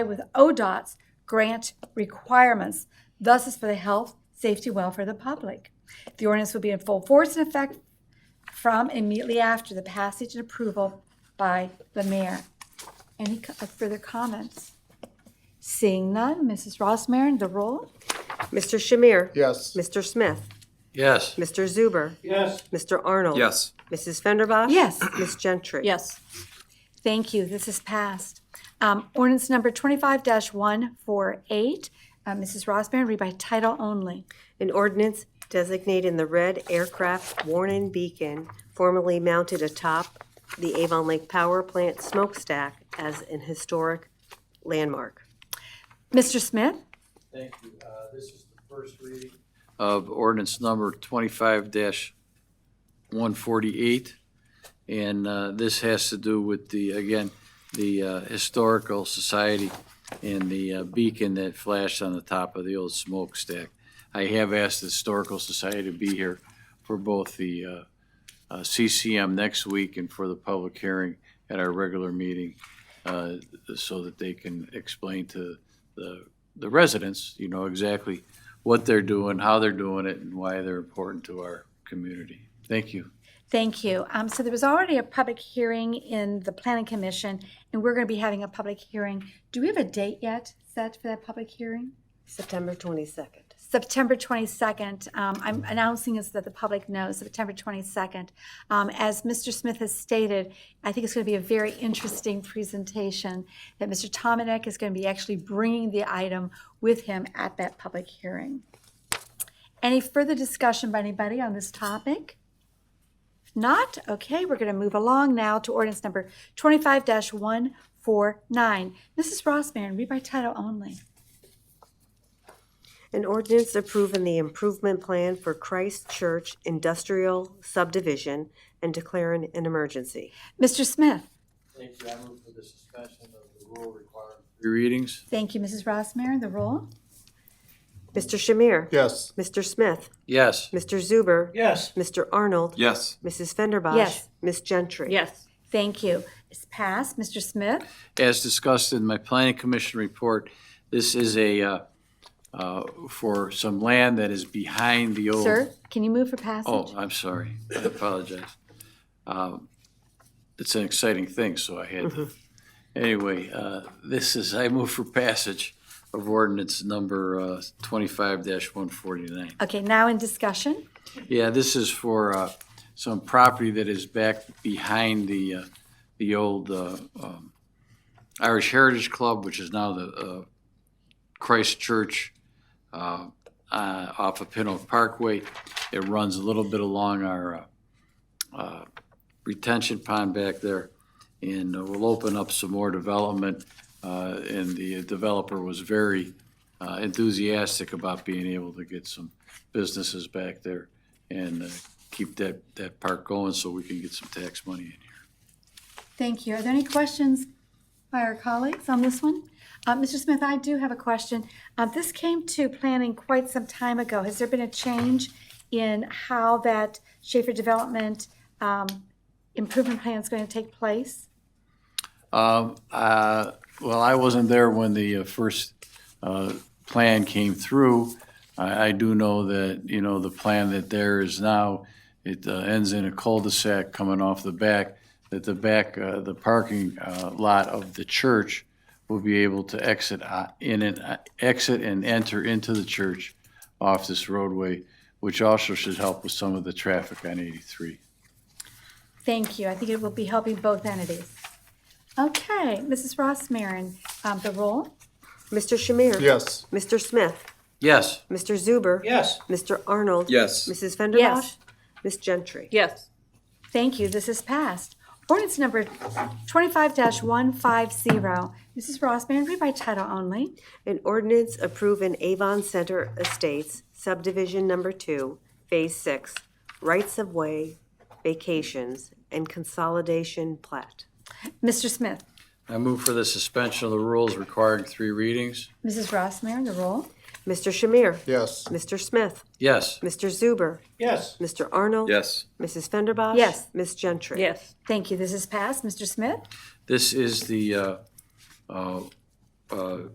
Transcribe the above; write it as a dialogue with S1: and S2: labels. S1: with ODOT's grant requirements. Thus is for the health, safety, welfare of the public. The ordinance will be in full force and effect from immediately after the passage and approval by the mayor. Any co- uh, further comments? Seeing none, Mrs. Ross Marin, the roll.
S2: Mr. Shamir?
S3: Yes.
S2: Mr. Smith?
S4: Yes.
S2: Mr. Zuber?
S3: Yes.
S2: Mr. Arnold?
S4: Yes.
S2: Mrs. Fenderbosh?
S1: Yes.
S2: Ms. Gentry?
S1: Yes. Thank you. This is passed. Um, Ordinance number 25-148. Uh, Mrs. Rossmarin, read by title only.
S2: An ordinance designating the red aircraft warning beacon formerly mounted atop the Avon Lake Power Plant smokestack as an historic landmark.
S1: Mr. Smith?
S5: Thank you. Uh, This is the first reading.
S4: Of ordinance number twenty-five one forty-eight. And uh, this has to do with the, again, the uh, Historical Society and the uh, beacon that flashed on the top of the old smokestack. I have asked the Historical Society to be here for both the uh, uh, CCM next week and for the public hearing at our regular meeting uh, so that they can explain to the the residents, you know, exactly what they're doing, how they're doing it, and why they're important to our community. Thank you.
S1: Thank you. Um, So there was already a public hearing in the Planning Commission, and we're going to be having a public hearing. Do we have a date yet set for that public hearing?
S2: September 22nd.
S1: September 22nd. Um, I'm announcing this so that the public knows, September 22nd. Um, As Mr. Smith has stated, I think it's going to be a very interesting presentation that Mr. Tominek is going to be actually bringing the item with him at that public hearing. Any further discussion by anybody on this topic? If not, okay, we're going to move along now to ordinance number 25-149. Mrs. Rossmarin, read by title only.
S2: An ordinance approving the improvement plan for Christ Church Industrial Subdivision and declaring an emergency.
S1: Mr. Smith?
S5: Thank you. I move for the suspension of the rule requiring
S4: Three readings?
S1: Thank you, Mrs. Rossmarin. The roll?
S2: Mr. Shamir?
S3: Yes.
S2: Mr. Smith?
S4: Yes.
S2: Mr. Zuber?
S5: Yes.
S2: Mr. Arnold?
S4: Yes.
S2: Mrs. Fenderbosh?
S1: Yes.
S2: Ms. Gentry?
S6: Yes.
S1: Thank you. It's passed. Mr. Smith?
S4: As discussed in my planning commission report, this is a, uh, uh, for some land that is behind the old.
S1: Sir, can you move for
S4: Oh,
S1: passage?
S4: I'm sorry. I apologize. Um, It's an exciting thing, so I had to. Anyway, uh, this is, I move for passage of ordinance number uh, twenty-five one forty-nine.
S1: Okay, now in discussion.
S4: Yeah, this is for uh, some property that is back behind the, uh, the old uh, um, Irish Heritage Club, which is now the uh, Christ Church uh, uh, off of Pin Oak Parkway. It runs a little bit along our uh, uh, retention pond back there, and uh, we'll open up some more development. uh, And the developer was very uh, enthusiastic about being able to get some businesses back there and uh, keep that, that park going so we can get some tax money in here.
S1: Thank you. Are there any questions by our colleagues on this one? Uh, Mr. Smith, I do have a question. Uh, This came to planning quite some time ago. Has there been a change in how that Schaefer Development um, Improvement Plan is going to take place?
S4: Um, uh, Well, I wasn't there when the uh, first uh, plan came through. I, I do know that, you know, the plan that there is now, it uh, ends in a cul-de-sac coming off the back, that the back, uh, the parking uh, lot of the church will be able to exit uh, in and, uh, exit and enter into the church off this roadway, which also should help with some of the traffic on 83.
S1: Thank you. I think it will be helping both entities. Okay, Mrs. Ross Marin, um, the roll?
S2: Mr. Shamir?
S3: Yes.
S2: Mr. Smith?
S4: Yes.
S2: Mr. Zuber?
S5: Yes.
S2: Mr. Arnold?
S4: Yes.
S2: Mrs. Fenderbosh?
S1: Yes.
S2: Ms. Gentry?
S6: Yes.
S1: Thank you, this is passed. Ordinance number 25-150, Mrs. Rossmarin, read by title only.
S2: An ordinance approving Avon Center Estates subdivision number two, phase six, rights of way, vacations, and consolidation plat.
S1: Mr. Smith,
S4: I move for the suspension of the rules requiring three readings.
S1: Mrs. Rossmarin, the roll.
S2: Mr. Shamir?
S3: Yes.
S2: Mr. Smith?
S4: Yes.
S2: Mr. Zuber?
S5: Yes.
S2: Mr. Arnold?
S4: Yes.
S2: Mrs. Fenderbosh?
S1: Yes.
S2: Ms. Gentry?
S6: Yes.
S1: Thank you, this is passed. Mr. Smith,
S4: This is the uh, uh, uh,